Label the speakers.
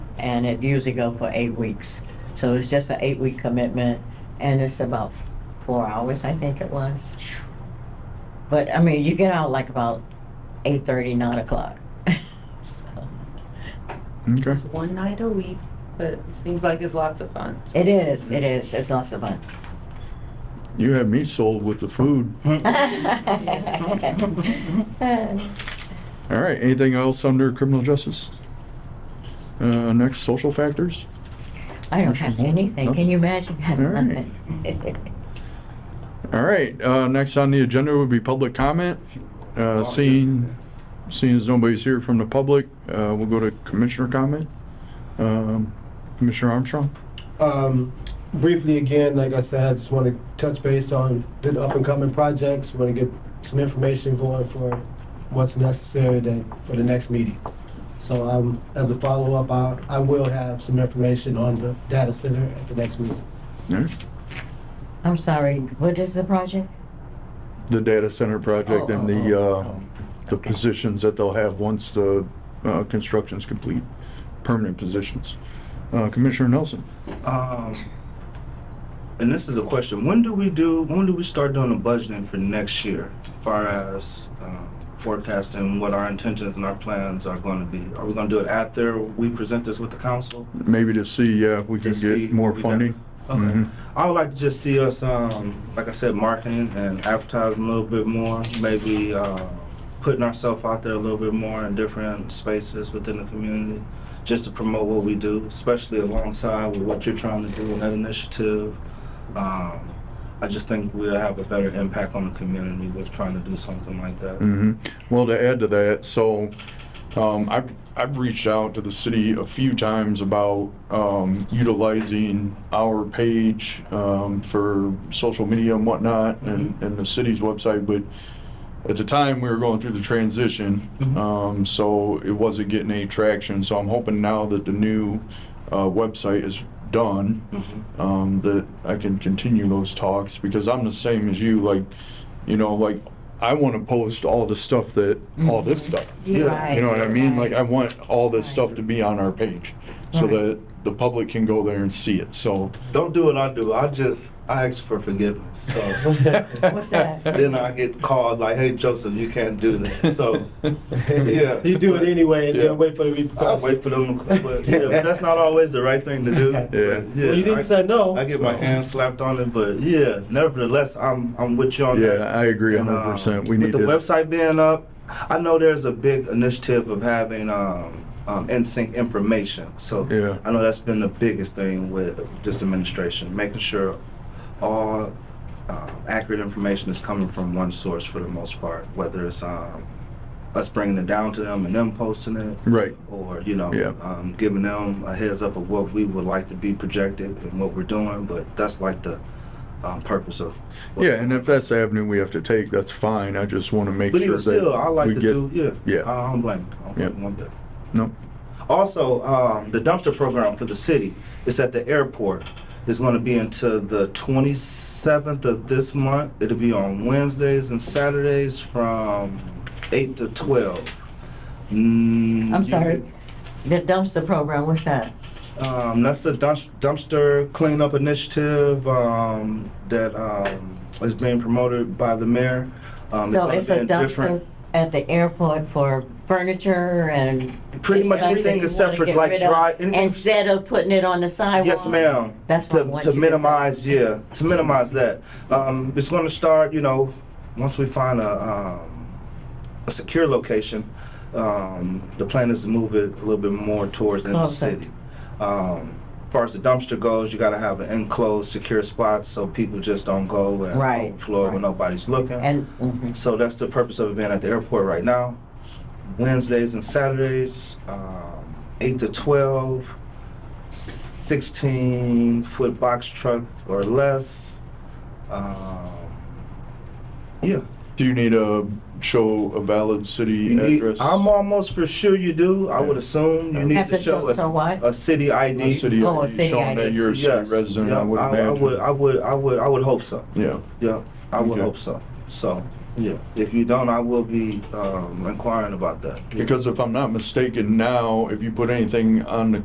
Speaker 1: and it usually go for eight weeks. So it's just an eight-week commitment, and it's about four hours, I think it was. But, I mean, you get out like about eight-thirty, nine o'clock. So,
Speaker 2: Okay.
Speaker 3: It's one night a week, but it seems like it's lots of fun.
Speaker 1: It is, it is, it's lots of fun.
Speaker 2: You had me sold with the food.
Speaker 1: Mm-hmm.
Speaker 2: All right, anything else under criminal justice? Uh, next, social factors?
Speaker 1: I don't have anything, can you imagine having
Speaker 2: All right.
Speaker 1: nothing?
Speaker 2: All right, uh, next on the agenda would be public comment.
Speaker 4: Oh,
Speaker 2: Uh, seeing, seeing as nobody's here from the public, uh, we'll go to commissioner comment. Um, Commissioner Armstrong?
Speaker 4: Um, briefly again, like I said, I just want to touch base on the up and coming projects. Want to get some information going for what's necessary to, for the next meeting. So um, as a follow up, I, I will have some information on the data center at the next meeting.
Speaker 2: All right.
Speaker 1: I'm sorry, what is the project?
Speaker 2: The data center project and the, uh, the positions that they'll have once the, uh, construction's complete, permanent positions. Uh, Commissioner Nelson?
Speaker 5: Um, and this is a question: When do we do? When do we start doing the budgeting for next year, as far as um, forecasting what our intentions and our plans are going to be? Are we going to do it after we present this with the council?
Speaker 2: Maybe to see, uh, if we can
Speaker 5: To see
Speaker 2: get more
Speaker 5: if we
Speaker 2: funding.
Speaker 5: Okay.
Speaker 2: Mhm.
Speaker 5: I would like to just see us, um, like I said, marketing and advertising a little bit more. Maybe uh, putting ourselves out there a little bit more in different spaces within the community, just to promote what we do, especially alongside with what you're trying to do in that initiative. Um, I just think we'll have a better impact on the community with trying to do something like that.
Speaker 2: hmm Well, to add to that, so um, I've, I've reached out to the city a few times about um, utilizing our page um, for social media and whatnot
Speaker 5: Mm-hmm.
Speaker 2: and, and the city's website, but at the time we were going through the transition,
Speaker 5: Mhm.
Speaker 2: um, so it wasn't getting any traction. So I'm hoping now that the new uh, website is done,
Speaker 5: Mhm.
Speaker 2: um, that I can continue those talks because I'm the same as you. Like, you know, like I want to post all the stuff that all this stuff.
Speaker 5: Yeah.
Speaker 1: Mm-hmm. Right,
Speaker 2: You know what I mean? Like, I
Speaker 1: right.
Speaker 2: want all this stuff to be on our page so
Speaker 1: Right.
Speaker 2: that the public can go there and see it. So,
Speaker 5: Don't do what I do. I just I ask for forgiveness. So
Speaker 1: What's that?
Speaker 5: then I get called like, "Hey Joseph, you can't do that." So Yeah.
Speaker 4: you do it anyway, and
Speaker 2: Yeah.
Speaker 4: then wait for the
Speaker 5: I
Speaker 4: repercussions.
Speaker 5: wait for them to come, but yeah, but that's not always the right thing to do.
Speaker 4: Yeah.
Speaker 5: But, yeah,
Speaker 4: well, you didn't
Speaker 5: I,
Speaker 4: say no.
Speaker 5: I get my
Speaker 4: so-
Speaker 5: hand slapped on it, but yeah, nevertheless, I'm I'm with you on
Speaker 2: yeah,
Speaker 5: that.
Speaker 2: I agree
Speaker 5: And, uh,
Speaker 2: 100%. We
Speaker 5: with
Speaker 2: need
Speaker 5: the
Speaker 2: to.
Speaker 5: website being up. I know there's a big initiative of having um, um, NSYNC information. So
Speaker 2: Yeah.
Speaker 5: I know that's been the biggest thing with this administration, making sure all um, accurate information is coming from one source for the most part, whether it's um, us bringing it down to them and them posting it,
Speaker 2: Right.
Speaker 5: or you know,
Speaker 2: Yeah.
Speaker 5: um, giving them a heads up of what we would like to be projected and what we're doing. But that's like the um, purpose of. what-
Speaker 2: Yeah, and if that's the avenue we have to take, that's fine. I just want to make
Speaker 5: But
Speaker 2: sure
Speaker 5: even
Speaker 2: that
Speaker 5: still, I like
Speaker 2: we
Speaker 5: to
Speaker 2: get,
Speaker 5: do. Yeah.
Speaker 2: yeah.
Speaker 5: I don't blame. I don't blame
Speaker 2: Yeah.
Speaker 5: one bit.
Speaker 2: No.
Speaker 5: Also, um, the dumpster program for the city is at the airport. It's going to be until the 27th of this month. It'll be on Wednesdays and Saturdays from 8 to 12.
Speaker 1: I'm
Speaker 5: Mm, you-
Speaker 1: sorry, the dumpster program, what's that?
Speaker 5: Um, that's the dumps- dumpster cleanup initiative um, that um, is being promoted by the mayor. Um,
Speaker 1: So
Speaker 5: gonna
Speaker 1: it's
Speaker 5: be
Speaker 1: a
Speaker 5: in different-
Speaker 1: dumpster at the airport for furniture and.
Speaker 5: Pretty much
Speaker 1: stuff that
Speaker 5: everything
Speaker 1: you
Speaker 5: except
Speaker 1: wanna
Speaker 5: for,
Speaker 1: get
Speaker 5: like,
Speaker 1: rid of,
Speaker 5: dry- anything-
Speaker 1: Instead of putting it on the sidewalk.
Speaker 5: Yes, ma'am.
Speaker 1: That's what I
Speaker 5: to,
Speaker 1: want
Speaker 5: to
Speaker 1: you to say.
Speaker 5: minimize, yeah, to minimize that. Um, it's going to start, you know, once we find a, um, a secure location. Um, the plan is to move it a little bit more towards the, end of the
Speaker 1: Closer.
Speaker 5: city. Um, as far as the dumpster goes, you got to have an enclosed, secure spot so people just don't go and
Speaker 1: Right,
Speaker 5: overflow
Speaker 1: right.
Speaker 5: when nobody's looking.
Speaker 1: And, mhm.
Speaker 5: So that's the purpose of it being at the airport right now. Wednesdays and Saturdays, um, 8 to 12, 16 foot box truck or less. Um, yeah.
Speaker 2: Do you need to show a valid city
Speaker 5: You need,
Speaker 2: address?
Speaker 5: I'm almost for sure you do. I would assume you need
Speaker 1: Have
Speaker 5: to
Speaker 1: to
Speaker 5: show
Speaker 1: show-
Speaker 5: us
Speaker 1: so what?
Speaker 5: a city ID.
Speaker 2: A city
Speaker 1: Oh, a
Speaker 2: ID,
Speaker 1: city
Speaker 2: showing
Speaker 1: ID.
Speaker 2: that you're a city
Speaker 5: Yes.
Speaker 2: resident,
Speaker 5: Yeah,
Speaker 2: I would
Speaker 5: I, I
Speaker 2: imagine.
Speaker 5: would, I would, I would, I would hope so.
Speaker 2: Yeah.
Speaker 5: Yeah, I would
Speaker 2: Okay.
Speaker 5: hope so. So, yeah, if you don't, I will be um, inquiring about that.
Speaker 2: Because if I'm not mistaken, now, if you put anything on the